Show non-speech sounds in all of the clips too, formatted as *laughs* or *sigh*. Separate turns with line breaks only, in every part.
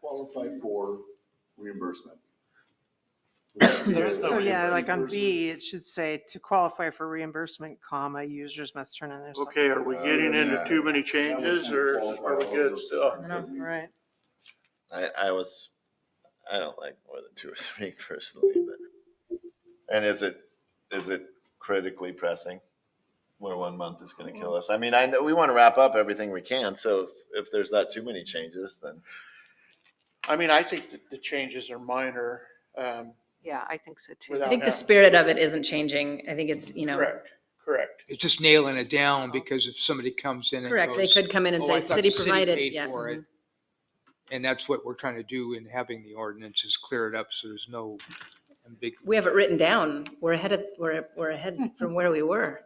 qualify for reimbursement.
There's no
So yeah, like on
Reimbursement.
B, it should say to qualify for reimbursement, comma, users must turn in their. cell-"
Okay, are we
Uh,
getting into too many changes or are we good uh, still?
No, Right.
I, I was, I don't like more than two or three *laughs* personally, but. And is it, is it critically pressing? Where one month is gonna kill us? I mean, I know, we wanna wrap up everything we can, so if, if there's not too many changes, then.
I mean, I think that the changes are minor. um,
Yeah, I think so too.
Without-
I think the spirit of it isn't changing. I think it's, you know,
Correct, correct.
It's just nailing it down because if somebody comes in and
correct. They
goes,
could come in and
"Oh, I
say,
thought the
city provided,
paid
yeah.
for it,"
mhm.
And that's what we're trying to do in having the ordinance is clear it up so there's no big.
We have it written down. We're ahead of, we're, we're ahead from where we were.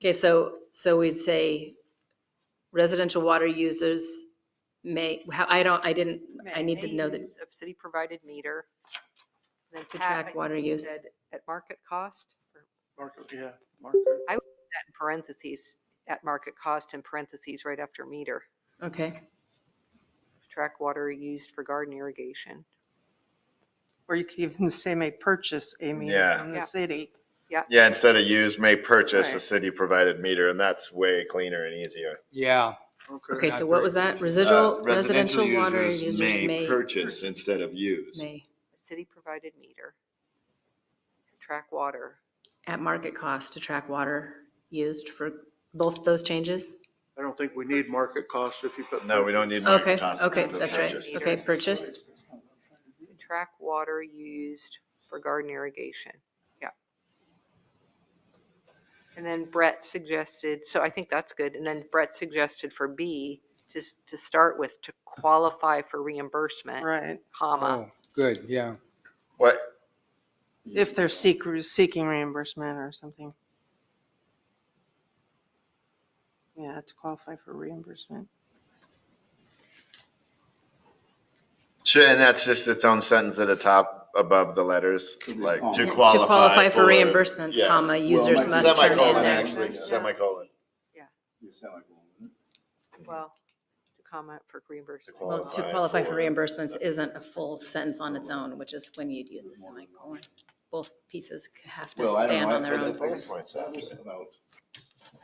Okay, so, so we'd say residential water users may, how- I don't, I didn't, I need to know that.
Use Of city provided meter. And Then
To
Pat, I
track
think
water
you
use.
said At market cost, or
Market, yeah, market.
that in parentheses, at market cost in parentheses right after meter.
Okay,
Track water used for garden irrigation.
Or you could even say may purchase a meter
Yeah.
from the
Yeah.
city.
Yeah, instead of use, may purchase a
Right.
city provided meter, and that's way cleaner and easier.
Yeah,
okay,
Not
so what
very
was that?
Uh,
Residual, residential water users may,
Purchase instead of use.
may,
City provided meter. Track water.
at market cost to track water used for both those changes?
I don't think we need market cost if you put.
No, we don't need
Okay,
market cost.
okay,
for
that's right.
purchase.
Okay, purchased.
Track water used for garden irrigation. Yeah. And then Brett suggested, so I think that's good. And then Brett suggested for B, just to start with, to qualify for reimbursement,
Right.
comma.
oh, good, yeah.
What,
If they're seek, seeking reimbursement or something. Yeah, to qualify for reimbursement.
Sure, and that's just its own sentence at the top above the letters, like to
To
qualify.
To qualify for reimbursements,
yeah.
comma, users
like
must turn in
Semicolon,
their.
actually,
Yeah.
semicolon.
Well, to comment for reimbursement.
To
Well, to
qualify
qualify for
for-
reimbursements isn't a full sentence on its own, which is when you'd use a semicolon. Both pieces have to
Well, I don't
stand
know.
on
I
their
put
own.
the bullet
points
That
after
was
it.
about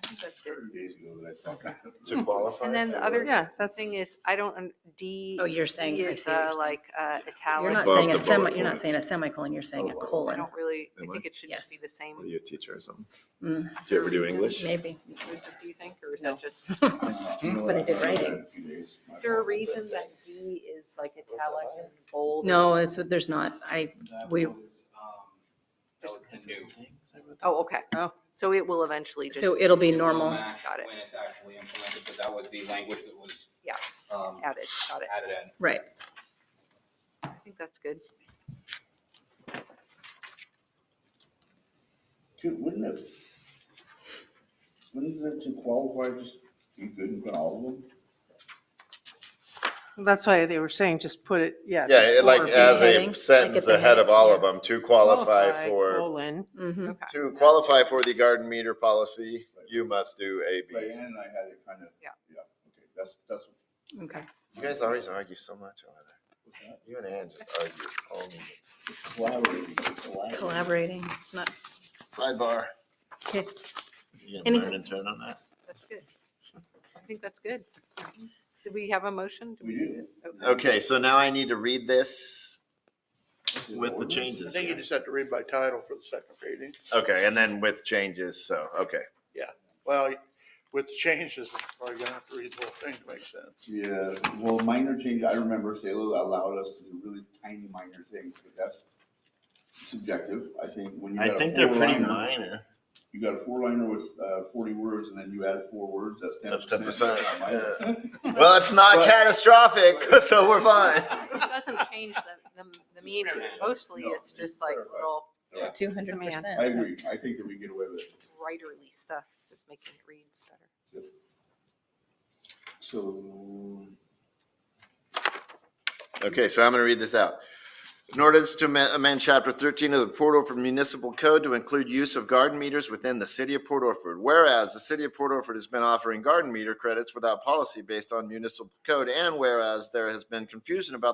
I think that's it.
thirty days ago that I thought that.
To qualify.
And then the other
Yeah, that's,
thing is, I don't, un- D.
Oh, you're saying,
D
I
is,
see what
uh,
you're saying.
Like uh,
You're
italic.
not
Above
saying a
the
semi,
bullet
you're not
points.
saying a semicolon, you're saying a
Oh, I
I
colon.
don't really,
Am
I
I?
think it should just be
Yes.
the same.
What are you, a teacher or something?
Mm,
Do you ever do English?
*laughs* Maybe.
*laughs*
Do you think, or is that just?
But I did writing.
Is there a reason that D is like italic and bold?
No, it's, there's not. I, we,
That
um, was the new.
Oh, okay.
Oh.
So it will eventually just,
so it'll be normal.
Got it.
When it's actually implemented, but that was the language that was.
Yeah.
um,
added, got it.
Added in.
Right.
I think that's good.
Dude, wouldn't it? Wouldn't it to qualify just be good and put all of them?
that's why they were saying just put it, yeah.
Yeah, it like
before
as
beheading,
a
like
sentence
at the
ahead of all
head,
of them, to qualify for,
Colon,
Mhm.
Okay.
to qualify for the garden meter policy, you must do A,
But
B.
Ann and I had it kind of.
Yeah.
Yeah, okay, that's, that's.
Okay.
You guys always argue so much over there.
what's that?
You and Ann just argue. all the-
It's collaborating. collaborating.
Collaborating. It's not,
Sidebar.
okay.
You gonna
Anything-
learn and turn on that?
That's good. I think that's good. Did we have a motion? Did
We do.
Okay, so now I need to read this with the
Ordinance.
changes.
I think you
here.
just have to read by title for the second reading.
Okay, and then with changes, so, okay.
Well, with the changes, we're gonna have to read the whole thing to make sense.
Yeah, well, minor change, I remember Shayla allowed us to do really tiny minor things, but that's subjective, I think. When you
I
got a
think they're pretty
four-liner-
minor.
You got a four liner with uh, forty words and then you add four words, that's ten
That's
percent.
10%, Well, it's not
But-
catastrophic, *laughs* so we're fine.
It doesn't change the, the- the meaning. Mostly
No,
it's just like
clarifies.
little
Two hundred
*laughs*
percent.
I agree, I think that we get away with it.
writerly stuff, just making it read better.
So,
Okay, so I'm going to read this out. An ordinance to amen- amend Chapter 13 of the Port Orford Municipal Code to include use of garden meters within the city of Port Orford. Whereas the city of Port Orford has been offering garden meter credits without policy based on municipal code, and whereas there has been confusion about